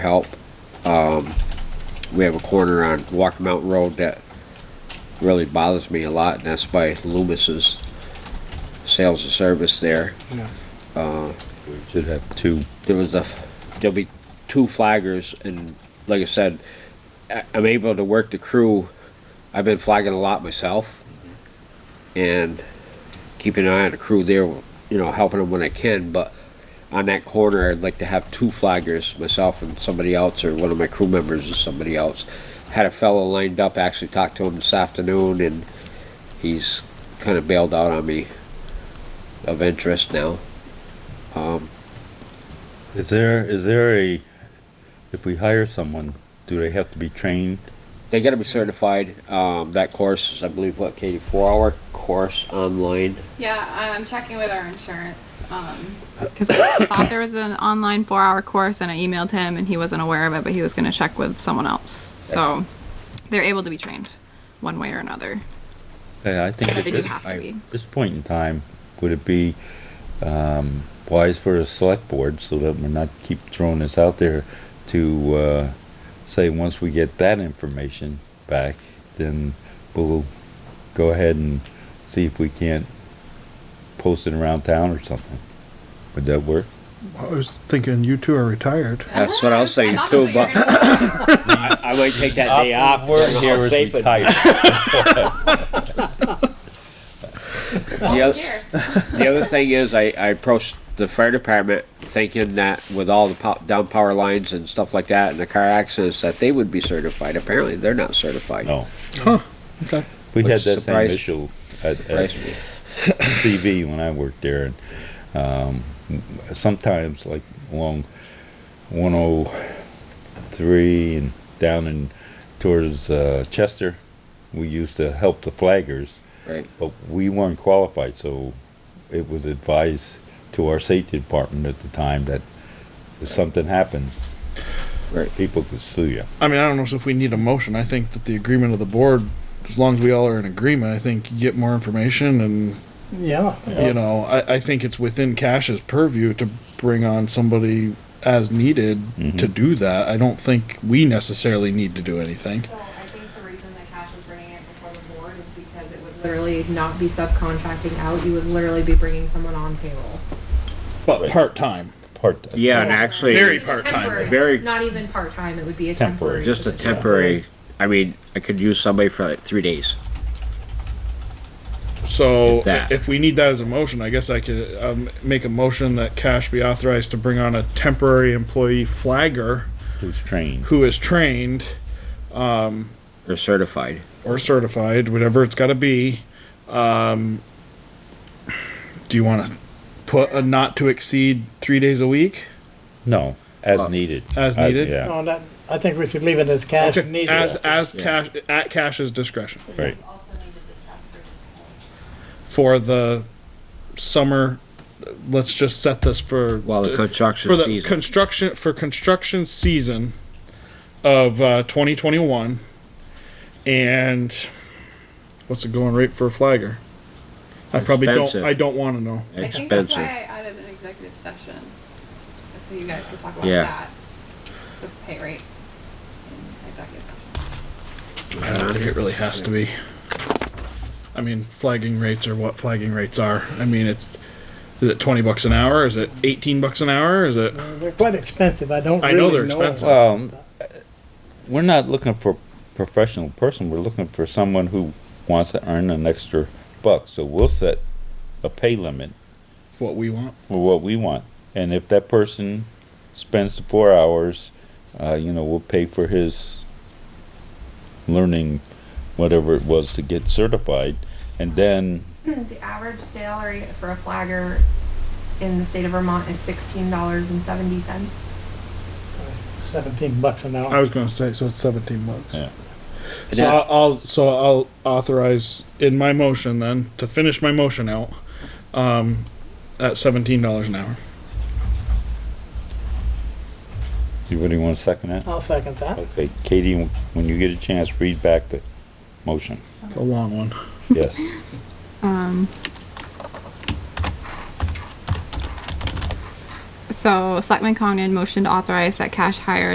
help. Um, we have a corner on Walker Mountain Road that really bothers me a lot, and that's by Loomis's sales and service there. Should have two. There was a, there'll be two flaggers, and like I said, I- I'm able to work the crew. I've been flagging a lot myself, and keeping an eye on the crew there, you know, helping them when I can, but on that corner, I'd like to have two flaggers, myself and somebody else, or one of my crew members or somebody else. Had a fellow lined up, actually talked to him this afternoon, and he's kind of bailed out on me of interest now. Is there, is there a, if we hire someone, do they have to be trained? They gotta be certified, um, that course, is, I believe, what, Katie, four-hour course online? Yeah, I'm checking with our insurance, um, cause I thought there was an online four-hour course and I emailed him and he wasn't aware of it, but he was gonna check with someone else. So, they're able to be trained, one way or another, Yeah, I think but at they do this, have to be. this point in time, would it be, um, wise for the select board, so that we're not keep throwing this out there, to, uh, say, once we get that information back, then we'll go ahead and see if we can't post it around town or something? Would that work? I was thinking you two are retired. That's what I was saying Ah, I thought too, that's what but you were gonna say. I, I might take that day off. Word so I'm here all is safe and- retired. The oth- Here. The other thing is, I, I approached the fire department thinking that with all the po- down power lines and stuff like that and the car accidents, that they would be certified. Apparently, they're not certified. No. Okay. We Which had that same surprised- issue at, at Surprised me. CV when I worked there, and um, sometimes like along 103 and down in towards uh, Chester, we used to help the flaggers, Right. but we weren't qualified, so it was advised to our safety department at the time that if something happens, Right. people could sue you. I mean, I don't know if we need a motion. I think that the agreement of the board, as long as we all are in agreement, I think you get more information and, Yeah, you know, I, I think it's within Cash's purview to bring on somebody as needed to do that. I don't think we necessarily need to do anything. So I think the reason that Cash was bringing it before the board is because it would literally not be subcontracting out, you would literally be bringing someone on payroll. But part-time. Part Yeah, and actually, Very part-time, Temporary, very- Not even part-time, it would be a Temporary. temporary. just a position. temporary. I mean, I could use somebody for like three days. So If that. if we need that as a motion, I guess I could, um, make a motion that Cash be authorized to bring on a temporary employee flagger who's trained. who is trained They're certified. or certified, whatever it's got to be. Um, do you want to put a not to exceed three days a week? No, as needed. Uh, As Uh, I- needed? yeah. no, that, I think we should leave it as cash Okay, needed. As as Yeah. cash at cash's discretion Right. for the summer. Let's just set this for While the construction for the season. construction for construction season of uh, 2021 and what's the going rate for a flagger? I probably don't. Expensive. I don't want to know. I think that's why I Expensive. added an executive session, so you guys could talk about Yeah. that, the pay rate in executive session. I don't think it really has to be. I mean, flagging rates are what flagging rates are. I mean, it's is it twenty bucks an hour? Is it eighteen bucks an hour? Is it? They're quite expensive, I don't I really know know. they're expensive. Well, we're not looking for professional person, we're looking for someone who wants to earn an extra buck, so we'll set a pay limit What we want? for what we want. And if that person spends the four hours, uh, you know, we'll pay for his learning whatever it was to get certified, and then, The average salary for a flagger in the state of Vermont is sixteen dollars and seventy cents. Seventeen bucks an I hour. was going to say so. It's seventeen bucks. Yeah. So I'll, I'll so I'll authorize in my motion then to finish my motion out um, at seventeen dollars an hour. you really wanna second that? I'll second that. Okay, Katie, when you get a chance, read back the motion, A long one. yes. So, Selectman Congdon motioned to authorize that cash hire